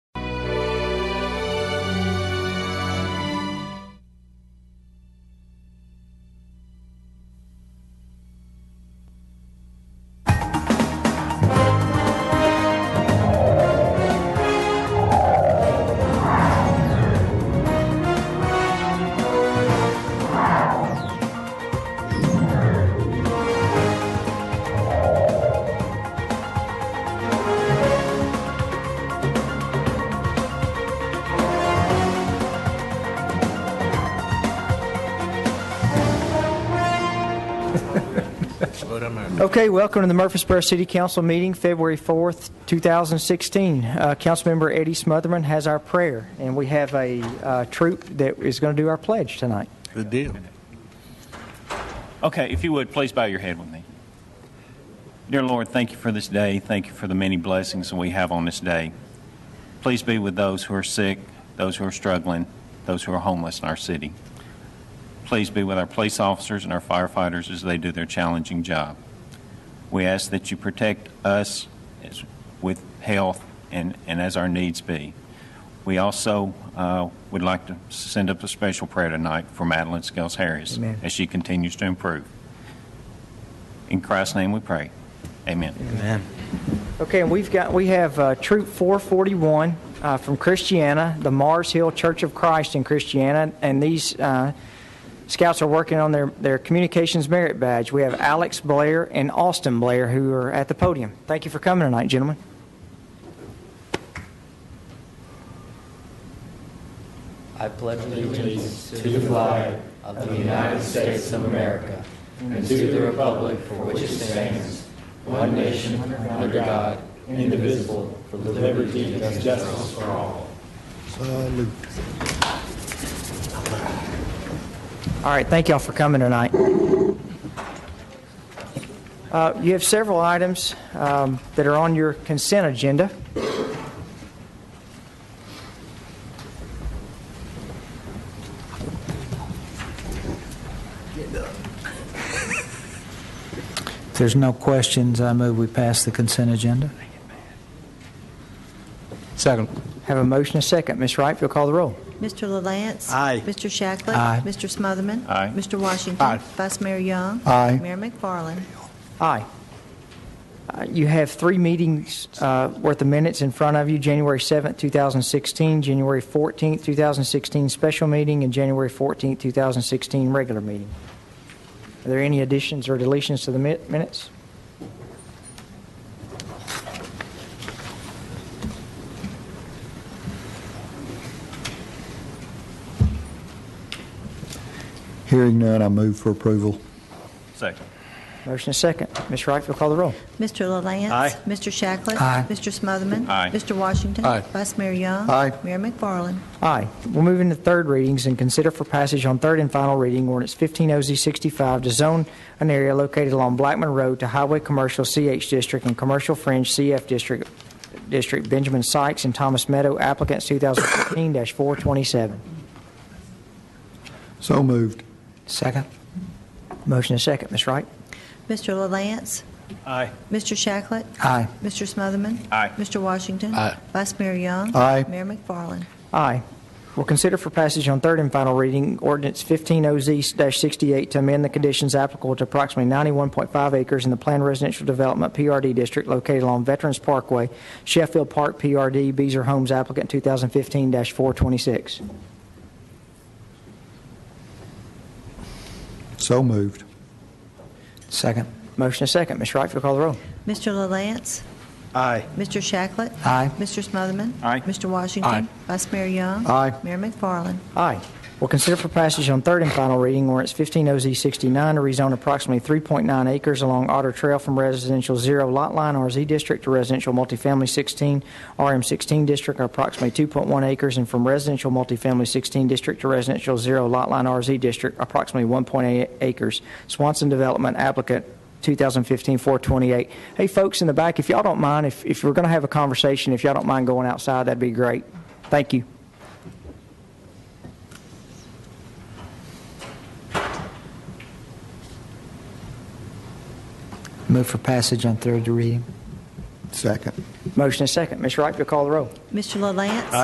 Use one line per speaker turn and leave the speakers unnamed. Okay, welcome to the Murfreesboro City Council meeting, February 4th, 2016. Uh, Councilmember Eddie Smotherman has our prayer, and we have a uh, troop that is going to do our pledge tonight.
Good deal.
Okay, if you would, please bow your head with me. Dear Lord, thank you for this day. Thank you for the many blessings we have on this day. Please be with those who are sick, those who are struggling, those who are homeless in our city. Please be with our police officers and our firefighters as they do their challenging job. We ask that you protect us as, with health and, and as our needs be. We also uh, would like to send up a special prayer tonight for Madeline Scales Harris
Amen.
as she continues to improve. In Christ's name we pray. Amen.
Okay, and we've got, we have uh, Troop 441 uh, from Christiana, the Mars Hill Church of Christ in Christiana, and these uh, scouts are working on their, their communications merit badge. We have Alex Blair and Austin Blair who are at the podium. Thank you for coming tonight, gentlemen.
I pledge allegiance to
the flag of the United States of America and to the republic for which it stands, one nation under God, indivisible, with liberty and justice for all.
All right, thank y'all for coming tonight. Uh, You have several items um, that are on your consent agenda.
If there's no questions, I move we pass the consent agenda.
Second.
Have a motion, a second. Ms. Wright, if you'll call the roll.
Mr. LaLance.
Aye.
Mr. Shacklet.
Aye.
Mr. Smotherman.
Aye.
Mr. Washington.
Aye.
Vice Mayor Young.
Aye.
Mayor McFarland.
Aye. Uh, You have three meetings uh, worth of minutes in front of you, January 7th, 2016, January 14th, 2016 special meeting, and January 14th, 2016 regular meeting. Are there any additions or deletions to the mi- minutes?
Hearing none, I move for approval.
Second.
Motion and second. Ms. Wright, if you'll call the roll.
Mr. LaLance.
Aye.
Mr. Shacklet.
Aye.
Mr. Smotherman.
Aye.
Mr. Washington.
Aye.
Vice Mayor Young.
Aye.
Mayor McFarland.
Aye. We'll move into third readings and consider for passage on third and final reading ordinance 15 OZ 65 to zone an area located along Blackman Road to Highway Commercial CH District and Commercial Fringe CF District, District Benjamin Sykes and Thomas Meadow applicants 2015-427.
So moved.
Second?
Motion is second. Ms. Wright?
Mr. LaLance.
Aye.
Mr. Shacklet.
Aye.
Mr. Smotherman.
Aye.
Mr. Washington.
Aye.
Vice Mayor Young.
Aye.
Mayor McFarland.
Aye. We'll consider for passage on third and final reading ordinance 15 OZ-68 to amend the conditions applicable to approximately 91.5 acres in the planned residential development PRD district located along Veterans Parkway, Sheffield Park PRD, Beezer Homes applicant 2015-426.
So moved.
Second?
Motion is second. Ms. Wright, if you'll call the roll.
Mr. LaLance.
Aye.
Mr. Shacklet.
Aye.
Mr. Smotherman.
Aye.
Mr. Washington.
Aye.
Vice Mayor Young.
Aye.
Mayor McFarland.
Aye. We'll consider for passage on third and final reading ordinance 15 OZ 69 to rezone approximately 3.9 acres along Otter Trail from residential zero lot line RZ district to residential multifamily 16 RM 16 district, or approximately 2.1 acres, and from residential multifamily 16 district to residential zero lot line RZ district, approximately 1.8 acres. Swanson Development applicant 2015-428. Hey, folks in the back, if y'all don't mind, if if we're going to have a conversation, if y'all don't mind going outside, that'd be great. Thank you.
Move for passage on third reading.
Second.
Motion is second. Ms. Wright, if you'll call the roll.
Mr. LaLance.